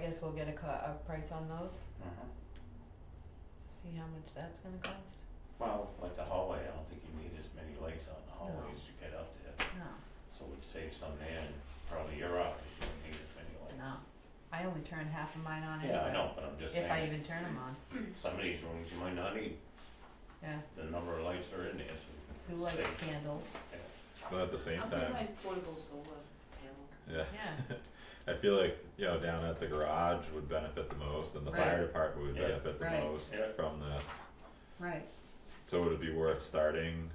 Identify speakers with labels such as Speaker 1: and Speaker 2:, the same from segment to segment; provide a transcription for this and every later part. Speaker 1: guess we'll get a co- a price on those,
Speaker 2: Uh-huh.
Speaker 1: see how much that's gonna cost.
Speaker 2: Well, like the hallway, I don't think you need as many lights out in the hallway
Speaker 1: No.
Speaker 2: as you get up there,
Speaker 1: No,
Speaker 2: so we'd save some there and probably your office, you don't need as many
Speaker 1: no,
Speaker 2: lights.
Speaker 1: I only turn half of mine on anyway.
Speaker 2: Yeah, I know, but I'm just
Speaker 1: If I
Speaker 2: saying,
Speaker 1: even turn them on,
Speaker 2: some of these rooms you might not need
Speaker 1: yeah,
Speaker 2: the number of lights that are in there, so
Speaker 1: Sue
Speaker 2: we can
Speaker 1: likes
Speaker 2: save.
Speaker 1: candles,
Speaker 3: But at the same time,
Speaker 4: my portable solar panel.
Speaker 3: yeah,
Speaker 1: yeah,
Speaker 3: I feel like you know down at the garage would benefit the most, and the fire
Speaker 1: Right.
Speaker 3: department would
Speaker 2: Yeah.
Speaker 3: benefit the
Speaker 1: Right.
Speaker 3: most
Speaker 2: Yeah.
Speaker 3: from this.
Speaker 1: right,
Speaker 3: So would it be worth starting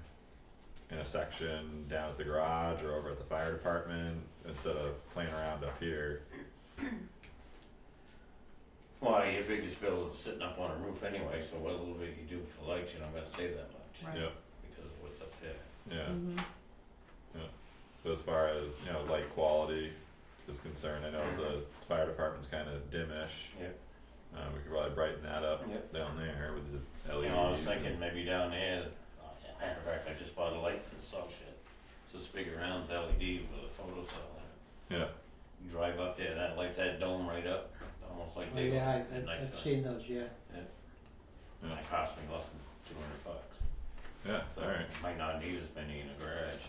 Speaker 3: in a section down at the garage or over at the fire department instead of playing around up here?
Speaker 2: Well, your biggest bill is sitting up on a roof anyway, so what little bit you do for lights, you're not gonna save that much
Speaker 1: right.
Speaker 3: Yep.
Speaker 2: because of what's up there.
Speaker 3: Yeah.
Speaker 4: Mm-hmm.
Speaker 1: hmm
Speaker 3: But as far as you know, light quality is concerned, I know the fire department's kind of dimish.
Speaker 2: Yeah.
Speaker 3: Uh, we could probably brighten that up
Speaker 2: Yeah.
Speaker 3: down there with the
Speaker 2: You
Speaker 3: LEDs.
Speaker 2: know, I was
Speaker 3: and-
Speaker 2: thinking maybe down there, uh, matter of fact, I just bought a light for the salt shed, it's this big round LED with a photo cell in it.
Speaker 3: Yeah.
Speaker 2: You drive up there, that lights that dome right up, almost like
Speaker 5: Oh,
Speaker 2: they
Speaker 5: yeah, I,
Speaker 2: at
Speaker 5: I've-
Speaker 2: nighttime.
Speaker 5: I've seen those, yeah.
Speaker 2: And it cost me less than two hundred bucks,
Speaker 3: Yeah.
Speaker 2: so
Speaker 3: all right.
Speaker 2: might not need as many in the garage.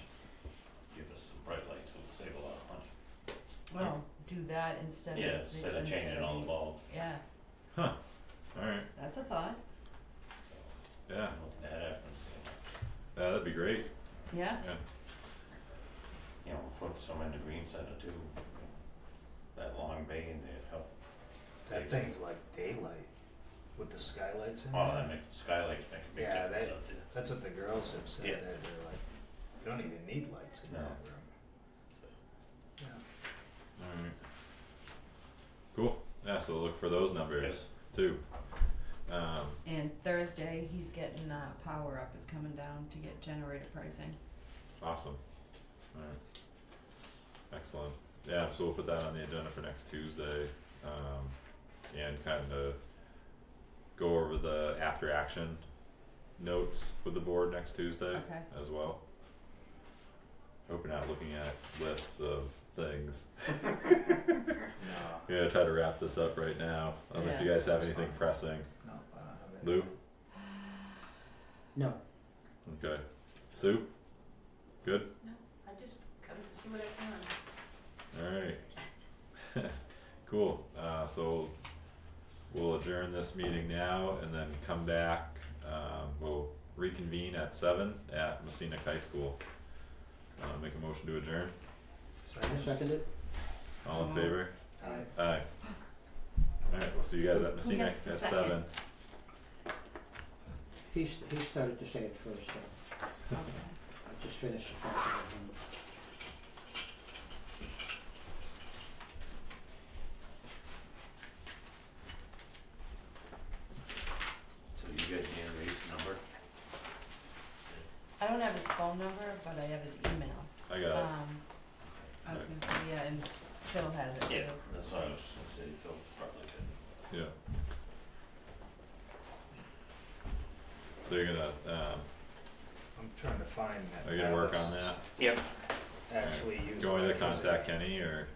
Speaker 2: Give us some bright lights, we'll save a lot of money.
Speaker 1: Well, do that instead of.
Speaker 2: Yeah,
Speaker 1: the-
Speaker 2: instead of changing
Speaker 1: instead
Speaker 2: all the
Speaker 1: of-
Speaker 2: bulbs,
Speaker 1: Yeah,
Speaker 3: All right.
Speaker 1: that's a thought,
Speaker 2: so
Speaker 3: Yeah.
Speaker 2: I'm hoping that happens,
Speaker 3: Yeah, that'd be great.
Speaker 1: yeah,
Speaker 2: you know, put some in the green center too. you know, That long bay in there help.
Speaker 6: That
Speaker 2: save-
Speaker 6: thing's like daylight with the skylights in
Speaker 2: Oh,
Speaker 6: there.
Speaker 2: that make, skylights make a big
Speaker 6: Yeah,
Speaker 2: difference
Speaker 6: they-
Speaker 2: out there,
Speaker 6: That's what the girls have said.
Speaker 2: Yeah.
Speaker 6: That they're like, you don't even need lights in
Speaker 2: No.
Speaker 6: that room.
Speaker 2: so.
Speaker 6: Yeah.
Speaker 3: All right. Cool. Yeah. So look for those numbers too. Um,
Speaker 1: and Thursday, he's getting, uh, Power Up is coming down to get generator pricing,
Speaker 3: awesome. All right. Excellent. Yeah. So we'll put that on the agenda for next Tuesday, um, and kind of go over the after action notes with the board next Tuesday
Speaker 1: Okay.
Speaker 3: as well. Hope you're not looking at lists of things.
Speaker 6: No.
Speaker 3: Yeah, try to wrap this up right now, unless you guys have
Speaker 6: That's
Speaker 3: anything
Speaker 6: fine.
Speaker 3: pressing.
Speaker 6: No. I don't have it.
Speaker 3: Lou?
Speaker 5: No,
Speaker 3: Okay. Sue? Good?
Speaker 4: No, I just come to see what I found.
Speaker 3: Alright. cool. Uh, so we'll adjourn this meeting now and then come back. Um, we'll reconvene at 7 at Messina High School. Uh, make a motion to adjourn.
Speaker 5: I
Speaker 6: Second.
Speaker 5: second it.
Speaker 3: All in favor?
Speaker 6: Aye.
Speaker 3: Aye. Alright, we'll see you guys at Messina
Speaker 1: gets the
Speaker 3: at
Speaker 1: second?
Speaker 3: 7.
Speaker 5: He, st- he started to say it first, so
Speaker 1: okay.
Speaker 5: I just finished the process of him.
Speaker 2: So you guys need to read the number?
Speaker 1: I don't have his phone number, but I have his email.
Speaker 3: I got it.
Speaker 1: Um, I was gonna say, yeah, and Phil has it too.
Speaker 2: That's what I was gonna say, Phil probably could.
Speaker 3: Yeah. So you're gonna, um,
Speaker 6: I'm trying to find that.
Speaker 3: are you gonna work
Speaker 6: Alex
Speaker 3: on that?
Speaker 2: Yep.
Speaker 6: Actually, use.
Speaker 3: Going to
Speaker 6: electricity.
Speaker 3: contact Kenny or,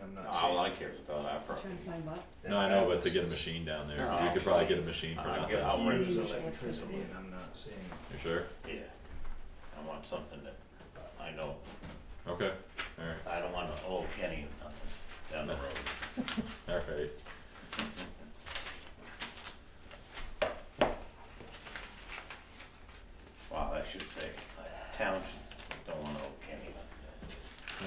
Speaker 6: And I'm not.
Speaker 2: All
Speaker 6: saying
Speaker 2: I care is about our property.
Speaker 1: Trying to find what?
Speaker 6: that
Speaker 3: no, I know, but
Speaker 6: Alex
Speaker 3: to get a
Speaker 6: is-
Speaker 3: machine down there,
Speaker 2: No,
Speaker 3: 'cause you could probably get a machine for
Speaker 2: I'll
Speaker 3: nothing.
Speaker 2: get, I'll rent
Speaker 6: Use
Speaker 2: it.
Speaker 6: electricity, and I'm not seeing.
Speaker 3: You sure?
Speaker 2: Yeah. I want something that, I know,
Speaker 3: Okay, alright,
Speaker 2: I don't wanna owe Kenny nothing down the road.
Speaker 3: alright.
Speaker 2: Wow, I should say, I town should- don't wanna owe Kenny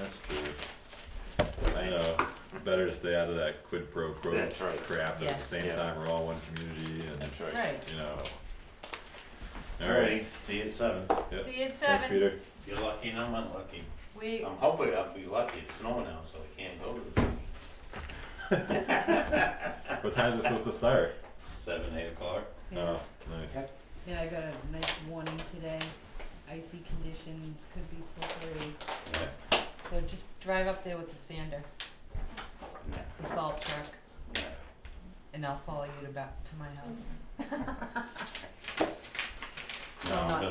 Speaker 2: nothing.
Speaker 3: That's true. I know, better to stay out of that quid pro quo
Speaker 2: That's right.
Speaker 3: crap, but at
Speaker 1: Yeah.
Speaker 3: the same
Speaker 2: Yeah.
Speaker 3: time, we're all one community and,
Speaker 1: Right.
Speaker 3: you know.
Speaker 2: Alrighty, see you at seven.
Speaker 3: Yep.
Speaker 1: See you at
Speaker 3: Thanks,
Speaker 1: seven.
Speaker 3: Peter. Um,
Speaker 2: If you're lucky and I'm unlucky.
Speaker 1: We,
Speaker 2: I'm hoping I'll be lucky, it's snowing now, so I can't go to the
Speaker 3: What time is it supposed to start?
Speaker 2: seven, eight o'clock.
Speaker 1: yeah,
Speaker 3: Oh, nice.
Speaker 5: Yep.
Speaker 1: Yeah, I got a nice warning today. Icy conditions, could be slippery,
Speaker 2: Yeah.
Speaker 1: so just drive up there with the sander,
Speaker 2: Yeah.
Speaker 1: the salt truck,
Speaker 2: Yeah.
Speaker 1: and I'll follow you to back to my house. So
Speaker 2: No,
Speaker 1: I'm not
Speaker 2: that's